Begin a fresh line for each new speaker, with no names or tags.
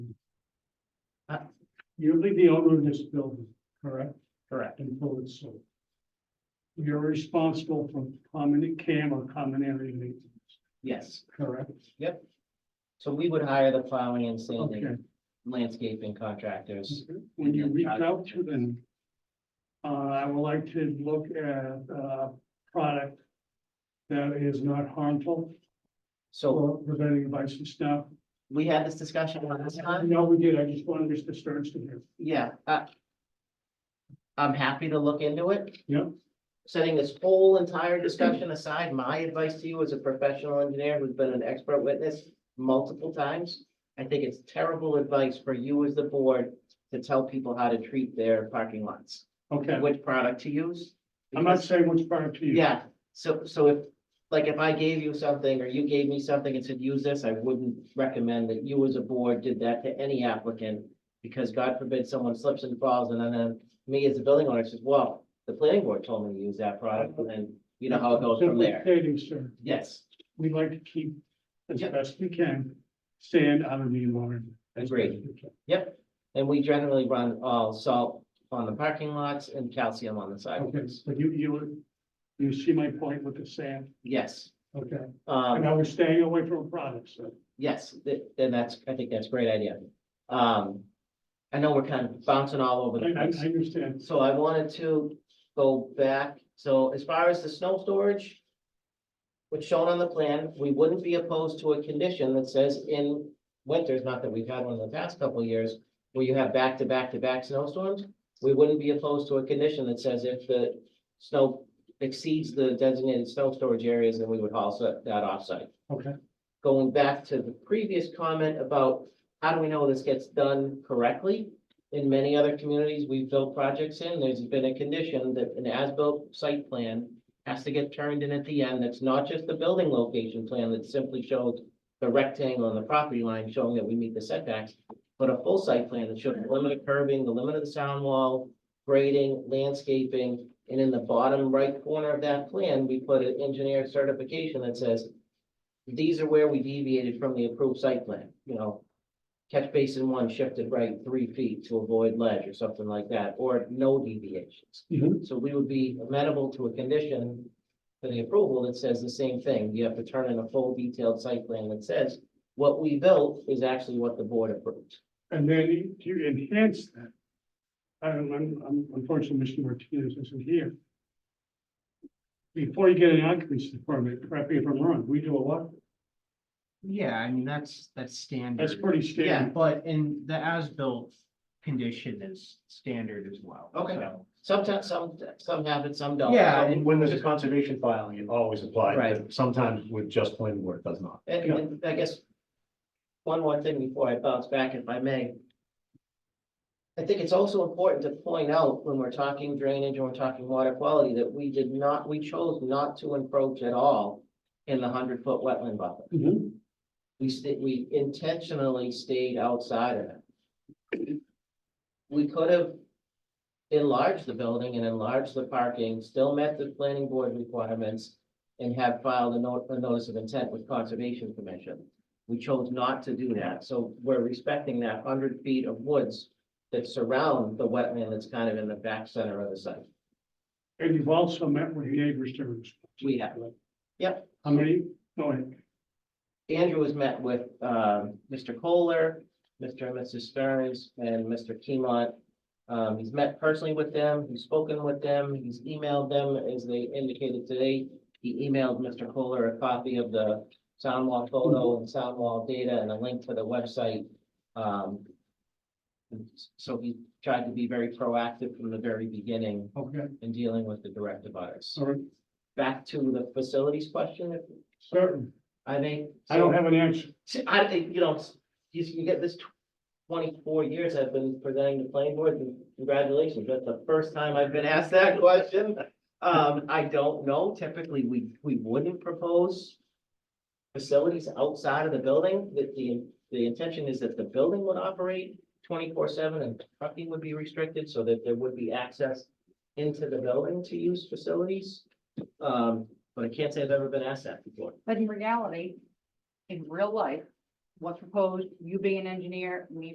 You'll be the owner of this building, correct?
Correct.
Until it's sold. You're responsible for common cam or common area maintenance,
Yes,
correct?
so we would hire the plowing and
Okay.
sanding landscaping contractors.
When you reach out to them, uh, I would like to look at, uh, product that is not harmful
So
or preventing vices now.
we had this discussion last time.
No, we did, I just wanted Mr. Stearns to hear.
Yeah, uh. I'm happy to look into it.
Yeah.
Setting this whole entire discussion aside, my advice to you as a professional engineer who's been an expert witness multiple times. I think it's terrible advice for you as the board to tell people how to treat their parking lots,
Okay,
which product to use.
I'm not
because-
saying which product to use.
Yeah, so, so if, like, if I gave you something or you gave me something and said, use this, I wouldn't recommend that you as a board did that to any applicant. Because God forbid someone slips and falls and then, then me as a building owner says, well, the planning board told me to use that product and then you know how it goes from
Simply
there.
Stating, sir,
Yes,
we like to keep as
Yeah.
best we can, stand out of the environment. as best
Agreed.
we can.
and we generally run all salt on the parking lots and calcium on the
Okay,
sidewalks.
so you, you, you see my point with the sand,
Yes,
okay, and
um,
I was staying away from products, so.
yes, th- then that's, I think that's a great idea. Um, I know we're kind of bouncing all over
I,
the
I I
place.
understand,
So I wanted to go back, so as far as the snow storage. Which shown on the plan, we wouldn't be opposed to a condition that says in winters, not that we've had one in the past couple of years. Where you have back to back to back snowstorms, we wouldn't be opposed to a condition that says if the snow. Exceeds the designated snow storage areas, then we would haul so- that offsite
okay,
going back to the previous comment about how do we know this gets done correctly? In many other communities, we've built projects in, there's been a condition that an as-built site plan has to get turned in at the end. That's not just the building location plan that simply shows the rectangle and the property line showing that we meet the setbacks, but a full site plan that shows the limit of curving, the limit of the sound wall, grading, landscaping, and in the bottom right corner of that plan, we put an engineer certification that says these are where we deviated from the approved site plan, you know. Catch basin one shifted right three feet to avoid ledge or something like that, or no deviations.
Mhm.
So we would be amenable to a condition for the approval that says the same thing. You have to turn in a full detailed site plan that says what we built is actually what the board approved.
and then to enhance that. I'm, I'm, I'm- unfortunately, Mr. Martinez isn't here. Before you get an occupancy permit, correct me if I'm wrong, we do a lot,
Yeah, I mean, that's, that's
that's
standard,
pretty
yeah,
standard,
but in the as-built condition is standard as well.
Okay.
so-
Sometimes, some, some have it, some don't.
Yeah,
Some-
and-
uh, When there's a conservation filing, it always applies,
Right.
but sometimes with just planning board, it does not.
And,
Yeah.
and I guess one more thing before I bounce back, if I may. I think it's also important to point out when we're talking drainage and we're talking water quality, that we did not, we chose not to encroach at all in the hundred foot wetland buffer.
Mhm.
We sta- we intentionally stayed outside of it. We could have enlarged the building and enlarged the parking, still met the planning board requirements. And have filed a note, a notice of intent with conservation commission. We chose not to do that, so we're respecting that hundred feet of woods. That surround the wetland that's kind of in the back center of the site.
and you've also met with neighbors to. respond.
We have,
How many, go ahead,
Andrew was met with, um, Mr. Kohler, Mr. and Mrs. Stearns, and Mr. Keemont. Um, he's met personally with them, he's spoken with them, he's emailed them, as they indicated today. He emailed Mr. Kohler a copy of the sound wall photo and sound wall data and a link to the website. Um, so he tried to be very proactive from the very beginning
okay,
in dealing with the direct abutters.
sorry,
Back to the facilities question, if
certain,
I may.
I don't have an answer.
See, I, I- you know, you, you get this tw- twenty-four years I've been presenting to planning board, and congratulations, that's the first time I've been asked that question. Um, I don't know, typically, we, we wouldn't propose facilities outside of the building, that the, the intention is that the building would operate twenty-four seven and trucking would be restricted, so that there would be access into the building to use facilities. Um, but I can't say I've ever been asked that before.
But in reality, in real life, what's proposed, you being an engineer, me